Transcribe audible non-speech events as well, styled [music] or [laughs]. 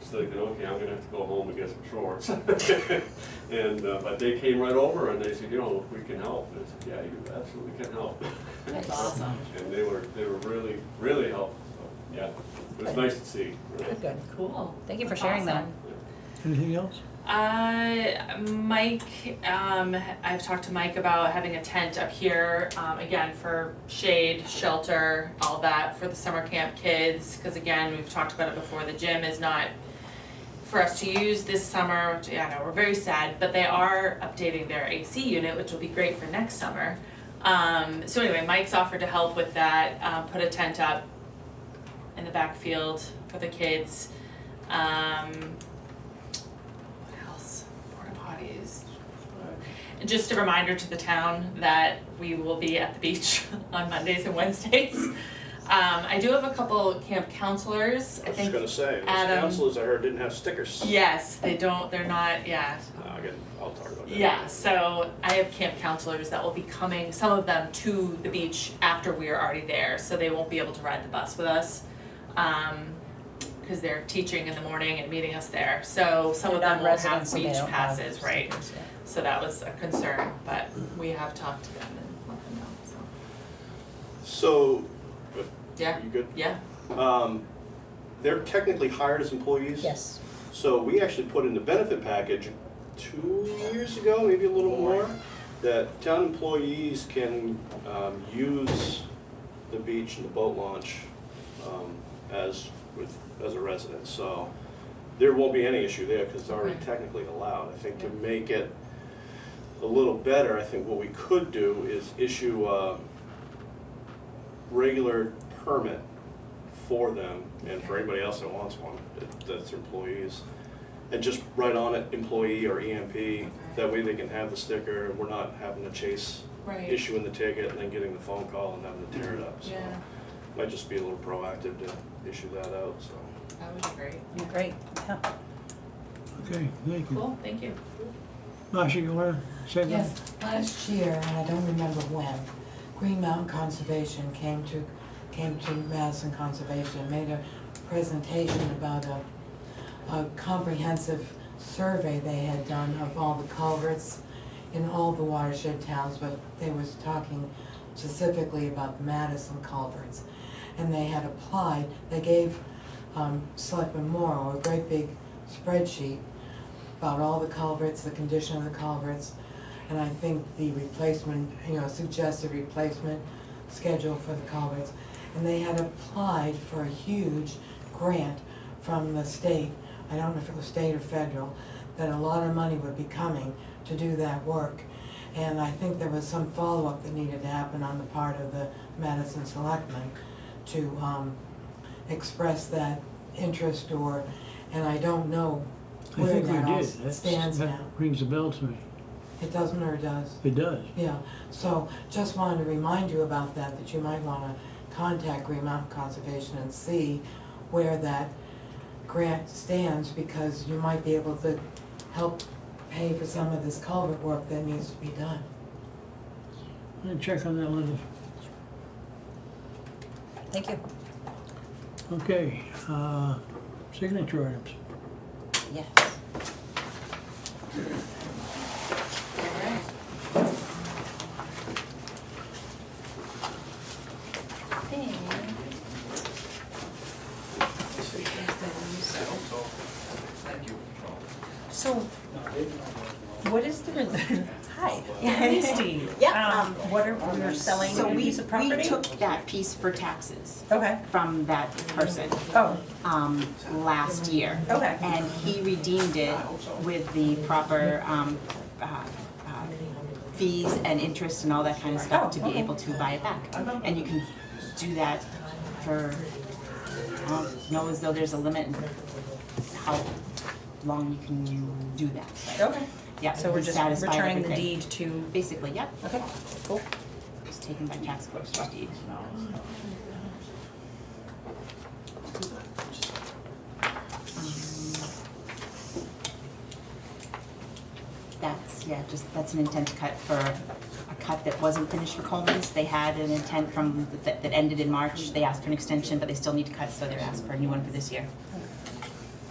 was thinking, okay, I'm gonna have to go home and get some shorts. [laughs] And, uh, but they came right over and they said, you know, we can help. And I said, yeah, you absolutely can help. That's awesome. [laughs] And they were, they were really, really helpful, so, yeah, it was nice to see. really. Good, good, Cool. cool. Thank you for sharing that. Awesome. Anything else? Uh, Mike, um, I've talked to Mike about having a tent up here, um, again, for shade, shelter, all that for the summer camp kids. Cause again, we've talked about it before, the gym is not for us to use this summer, which, yeah, I know, we're very sad, but they are updating their AC unit, which will be great for next summer. Um, so anyway, Mike's offered to help with that, um, put a tent up in the backfield for the kids. Um, what else? Porta potties. And Just a reminder to the town that we will be at the beach [laughs] on Mondays and Wednesdays. Um, I do have a couple camp counselors, I I was just think. gonna say, those Adam- counselors I heard didn't have stickers. Yes, they don't, they're not, yeah, Uh, I can, I'll talk about that. yeah, so I have camp counselors that will be coming, some of them to the beach after we are already there, so they won't be able to ride the bus with us. Um, cause they're teaching in the morning and meeting us there, so some of them will have Non-residents, so they beach don't have passes, right? stickers, yeah. So that was a concern, but we have talked to them and let them know, so, So, yeah, you good? yeah, Um, they're technically hired as employees. Yes, So we actually put in the benefit package two years ago, maybe a little more, that town employees can um, use the beach and the boat launch um, as with as a resident. So there won't be any issue there because it's already Okay. technically allowed. I think to make it a little better, I think what we could do is issue uh, a regular permit for them and for anybody else that wants one, that- that's employees. And just write on it employee or EMP, that way they can have the sticker and we're not having to chase right, yeah. issuing the ticket and then getting the phone call and having to tear it up, so. Might just be a little proactive to issue that out, so. That would be great, great, yeah. Okay, thank you. cool, thank you. Marcia, you wanna say that? Yes, last year, and I don't remember when, Green Mountain Conservation came to, came to Madison Conservation, and made a presentation about a, a comprehensive survey they had done of all the culverts in all the watershed towns, but they was talking specifically about Madison culverts. And they had applied, they gave, um, Selectman Morrow a great big spreadsheet about all the culverts, the condition of the culverts, and I think the replacement, you know, suggested replacement schedule for the culverts. And they had applied for a huge grant from the state, I don't know if it was state or federal, that a lot of money would be coming to do that work. And I think there was some follow-up that needed to happen on the part of the Madison Selectmen to, um, express that interest or, and I don't know I where think we that all did. That's, stands now. that rings a bell to me. It doesn't or it does? It does. Yeah, so just wanted to remind you about that, that you might wanna contact Green Mountain Conservation and see where that grant stands, because you might be able to help pay for some of this culvert work that needs to be done. I'll check on that letter. Thank you. Okay, uh, signature items. Yes. Alright. So, what is the, rel- Hi. Misty? Yeah, um, What are, we're selling So a we, piece of property? we took that piece for taxes Okay, from that person, oh, um, last year. Okay. And he redeemed it with the proper, um, uh, uh, fees and interest and all that kind of Oh, stuff to be okay. able to buy it back. And you can do that for, I don't know as though there's a limit in how long you can do that, but, okay. yeah, So we're he's just satisfied returning the everything. deed to, Basically, yep. okay, cool. Just taken by tax collector's deed. Um, That's, yeah, just, that's an intent cut for a cut that wasn't finished for Coleman's. They had an intent from, that, that ended in March. They asked for an extension, but they still need to cut, so they're asked for a new one for this year.